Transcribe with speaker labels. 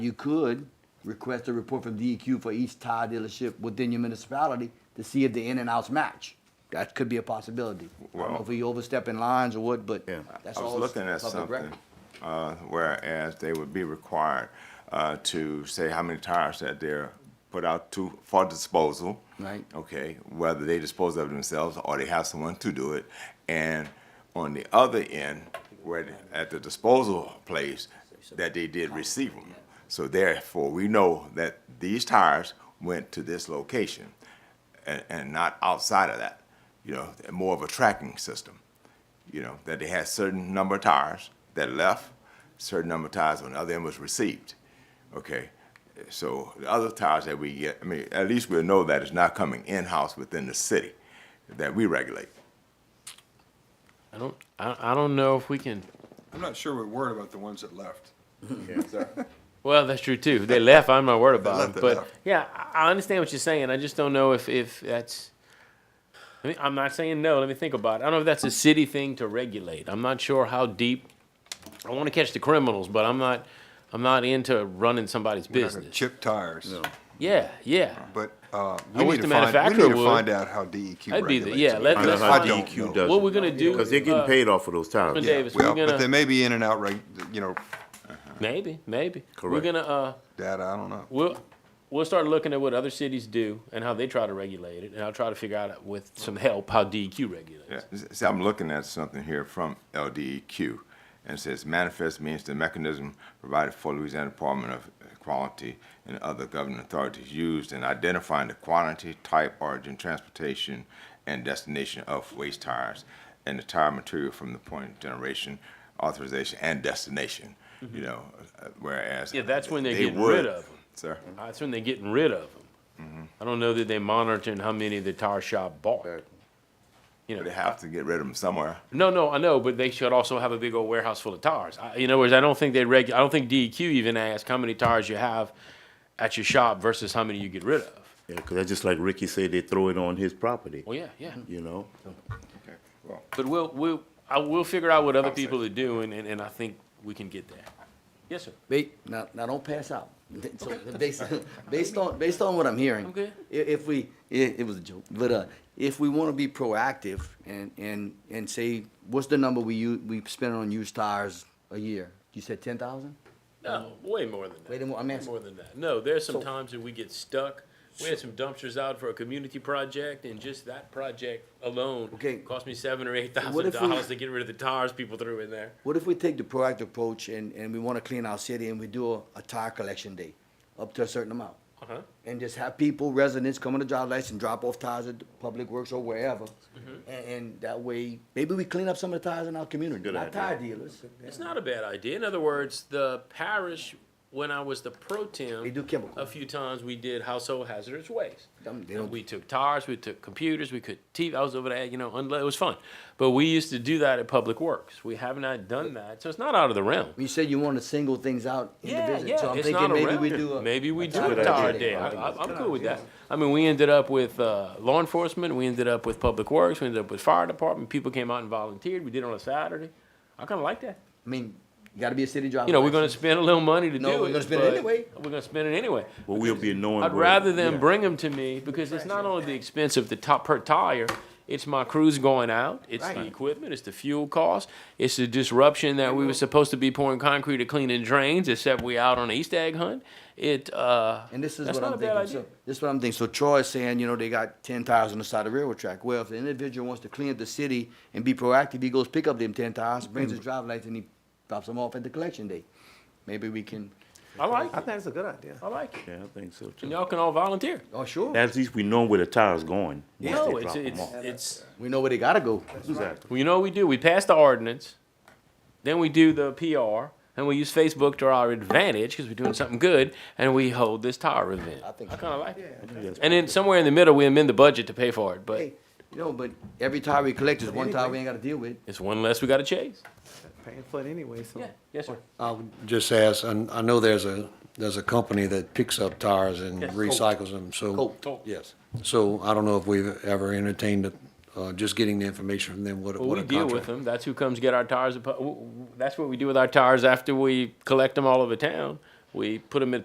Speaker 1: You could request a report from DEQ for each tire dealership within your municipality to see if the in and outs match. That could be a possibility. I don't know
Speaker 2: Well-
Speaker 1: if we overstepping lines or what, but
Speaker 3: Yeah.
Speaker 1: that's
Speaker 2: I was
Speaker 1: all
Speaker 2: looking at
Speaker 1: public
Speaker 2: something,
Speaker 1: record.
Speaker 2: uh, whereas they would be required, uh, to say how many tires that they're put out to, for disposal.
Speaker 1: Right.
Speaker 2: Okay, whether they dispose of themselves or they have someone to do it. And on the other end, where, the- at the disposal place, that they did receive them. So therefore, we know that these tires went to this location and, and not outside of that. You know, more of a tracking system you know, that they had certain number of tires that left, certain number of tires on the other end was received. Okay, so the other tires that we get, I mean, at least we'll know that it's not coming in-house within the city that we regulate.
Speaker 4: I don't, I, I don't know if we can.
Speaker 5: I'm not sure we're worried about the ones that left.
Speaker 4: Well, that's true too. They left. I'm not worried about
Speaker 2: left,
Speaker 4: it.
Speaker 2: they
Speaker 4: But
Speaker 2: left.
Speaker 4: yeah, I I understand what you're saying. I just don't know if if that's. I mean, I'm not saying no. Let me think about it. I don't know if that's a city thing to regulate. I'm not sure how deep. I want to catch the criminals, but I'm not. I'm not into running somebody's
Speaker 5: We're not gonna
Speaker 4: business.
Speaker 5: Chip tires,
Speaker 4: Yeah, yeah.
Speaker 5: but, uh,
Speaker 4: I
Speaker 5: we
Speaker 4: wish
Speaker 5: need to
Speaker 4: the
Speaker 5: find, we
Speaker 4: manufacturer
Speaker 5: need to
Speaker 4: would.
Speaker 5: find out how DEQ
Speaker 4: That'd be the-
Speaker 5: regulates.
Speaker 4: yeah,
Speaker 5: it.
Speaker 4: let-
Speaker 5: I
Speaker 4: let's
Speaker 5: don't
Speaker 4: find
Speaker 5: know.
Speaker 4: out.
Speaker 5: I don't
Speaker 3: DEQ
Speaker 5: know.
Speaker 3: does,
Speaker 4: What we're gonna do?
Speaker 3: because they're getting
Speaker 4: uh,
Speaker 3: paid off of those
Speaker 4: Mr.
Speaker 3: towns.
Speaker 4: Davis,
Speaker 5: Well,
Speaker 4: we're
Speaker 5: but they
Speaker 4: gonna
Speaker 5: may be in and out, reg- you know,
Speaker 4: maybe, maybe. We're
Speaker 3: Correct.
Speaker 4: gonna uh.
Speaker 5: data, I don't know.
Speaker 4: We'll we'll start looking at what other cities do and how they try to regulate it, and I'll try to figure out with some help how DEQ regulates.
Speaker 2: Yeah, s- See, I'm looking at something here from LDEQ, and it says manifest means the mechanism provided for Louisiana Department of Equality and other government authorities used in identifying the quantity, type, origin, transportation, and destination of waste tires and the tire material from the point of generation, authorization, and destination, you know, uh, whereas.
Speaker 4: Mm-hmm. Yeah, that's when they're
Speaker 2: they
Speaker 4: getting
Speaker 2: would-
Speaker 4: rid of 'em.
Speaker 2: Sir,
Speaker 4: That's when they're getting rid of them. I don't know that they're monitoring how many the tire shop bought. You
Speaker 2: they
Speaker 4: know,
Speaker 2: have to get rid of them somewhere.
Speaker 4: no, no, I know, but they should also have a big old warehouse full of tires. I, in other words, I don't think they reg. I don't think DEQ even asks how many tires you have at your shop versus how many you get rid of.
Speaker 3: Yeah, because that's just like Ricky said, they throw it on his property,
Speaker 4: Well, yeah, yeah.
Speaker 3: you know?
Speaker 2: Okay, well,
Speaker 4: But we'll, we'll, I will figure out what other people are doing, and, and I think we can get there. Yes, sir.
Speaker 1: Wait, now, now don't pass out. So, based, based on, based on what I'm hearing.
Speaker 4: I'm good.
Speaker 1: i- If, we, it, it was a joke, but, uh, if we wanna be proactive and, and, and say, what's the number we u, we spend on used tires a year? You said ten thousand?
Speaker 4: No, way more than that.
Speaker 1: Wait a Um, mo- I'm
Speaker 4: Way
Speaker 1: asking-
Speaker 4: More than that. No, there's some times that we get stuck. We had some dumpsters out for a community project, and just that project alone
Speaker 1: Okay.
Speaker 4: cost me seven or eight
Speaker 1: What
Speaker 4: thousand
Speaker 1: if we-
Speaker 4: dollars to get rid of the tires people threw in there.
Speaker 1: What if we take the proactive approach and, and we want to clean our city and we do a, a tire collection day up to a certain amount?
Speaker 4: Uh-huh.
Speaker 1: And just have people, residents, come on the job lights and drop off tires at Public Works or wherever.
Speaker 4: Mm-hmm.
Speaker 1: And, and that way, maybe we clean up some of the tires in our community,
Speaker 3: Good
Speaker 1: not
Speaker 3: idea.
Speaker 1: tire dealers.
Speaker 4: It's not a bad idea. In other words, the parish, when I was the pro temp.
Speaker 1: They do chemical.
Speaker 4: A few times we did household hazardous waste.
Speaker 1: Them- they
Speaker 4: And
Speaker 1: don't-
Speaker 4: we took tires, we took computers, we could TV, I was over there, you know, unlo- it was fun. But we used to do that at Public Works. We have not done that, so it's not out of the realm.
Speaker 1: You said you want to single things out
Speaker 4: Yeah,
Speaker 1: individually, so
Speaker 4: yeah,
Speaker 1: I'm
Speaker 4: it's
Speaker 1: thinking
Speaker 4: not
Speaker 1: maybe
Speaker 4: around.
Speaker 1: we do a.
Speaker 4: Maybe we
Speaker 1: a
Speaker 4: do a
Speaker 1: tire
Speaker 4: tire
Speaker 1: day.
Speaker 4: day. I,
Speaker 1: I think
Speaker 4: I,
Speaker 1: it's a
Speaker 4: I'm
Speaker 1: good
Speaker 4: cool with that. I mean, we ended up with, uh, law enforcement, we ended up with public works, we ended up with fire department, people came out and volunteered, we did it on a Saturday. I kinda like that.
Speaker 1: I mean, gotta be a city driver.
Speaker 4: You know, we're gonna spend a little money to do
Speaker 1: No,
Speaker 4: it.
Speaker 1: we're gonna spend it
Speaker 4: but
Speaker 1: anyway.
Speaker 4: We're gonna spend it anyway.
Speaker 3: But we'll be knowing.
Speaker 4: I'd
Speaker 3: where-
Speaker 4: rather them
Speaker 3: yeah.
Speaker 4: bring them to me, because it's not only the expense of the top per tire, it's my crews going out, it's the
Speaker 1: Right.
Speaker 4: equipment, it's the fuel cost, it's the disruption that we were supposed to be pouring concrete to cleaning drains, except we out on an East egg hunt. It, uh.
Speaker 1: And this is
Speaker 4: that's
Speaker 1: what
Speaker 4: not
Speaker 1: I'm
Speaker 4: a bad
Speaker 1: thinking,
Speaker 4: idea.
Speaker 1: so, this is what I'm thinking, so Troy is saying, you know, they got ten tires on the side of the railroad track, well, if the individual wants to clean up the city and be proactive, he goes pick up them ten tires, brings his drive lights, and he drops them off at the collection day. Maybe we can,
Speaker 4: I like
Speaker 6: I
Speaker 4: it,
Speaker 6: think it's a good idea.
Speaker 4: I like it.
Speaker 3: Yeah, I think so
Speaker 4: And
Speaker 3: too.
Speaker 4: y'all can all volunteer.
Speaker 1: oh, sure,
Speaker 3: At least we know where the tire's going. once they
Speaker 4: No, it's,
Speaker 3: drop 'em
Speaker 4: it's,
Speaker 3: off.
Speaker 4: it's,
Speaker 1: we know where they gotta go.
Speaker 3: Exactly.
Speaker 4: well, you know what we do? We pass the ordinance, then we do the PR, and we use Facebook to our advantage because we're doing something good, and we hold this tire event.
Speaker 1: I
Speaker 4: I
Speaker 1: think-
Speaker 4: kind of like it.
Speaker 3: That's
Speaker 4: And then somewhere in the middle, we amend the budget to pay for it, but
Speaker 1: Hey, you know, but every tire we collect is one tire we ain't gotta deal with.
Speaker 4: it's one less we got to chase.
Speaker 6: Paying for it anyway, so.
Speaker 4: yes, sir.
Speaker 7: I would just ask, and I know there's a, there's a company that picks up tires and recycles them, so.
Speaker 1: Colt.
Speaker 7: Yes. So I don't know if we've ever entertained, the- uh, just getting the information from them, what,
Speaker 4: Well,
Speaker 7: what
Speaker 4: we
Speaker 7: a
Speaker 4: deal with
Speaker 7: contract.
Speaker 4: them. That's who comes get our tires. apo- w- w- That's what we do with our tires after we collect them all over town. we put them in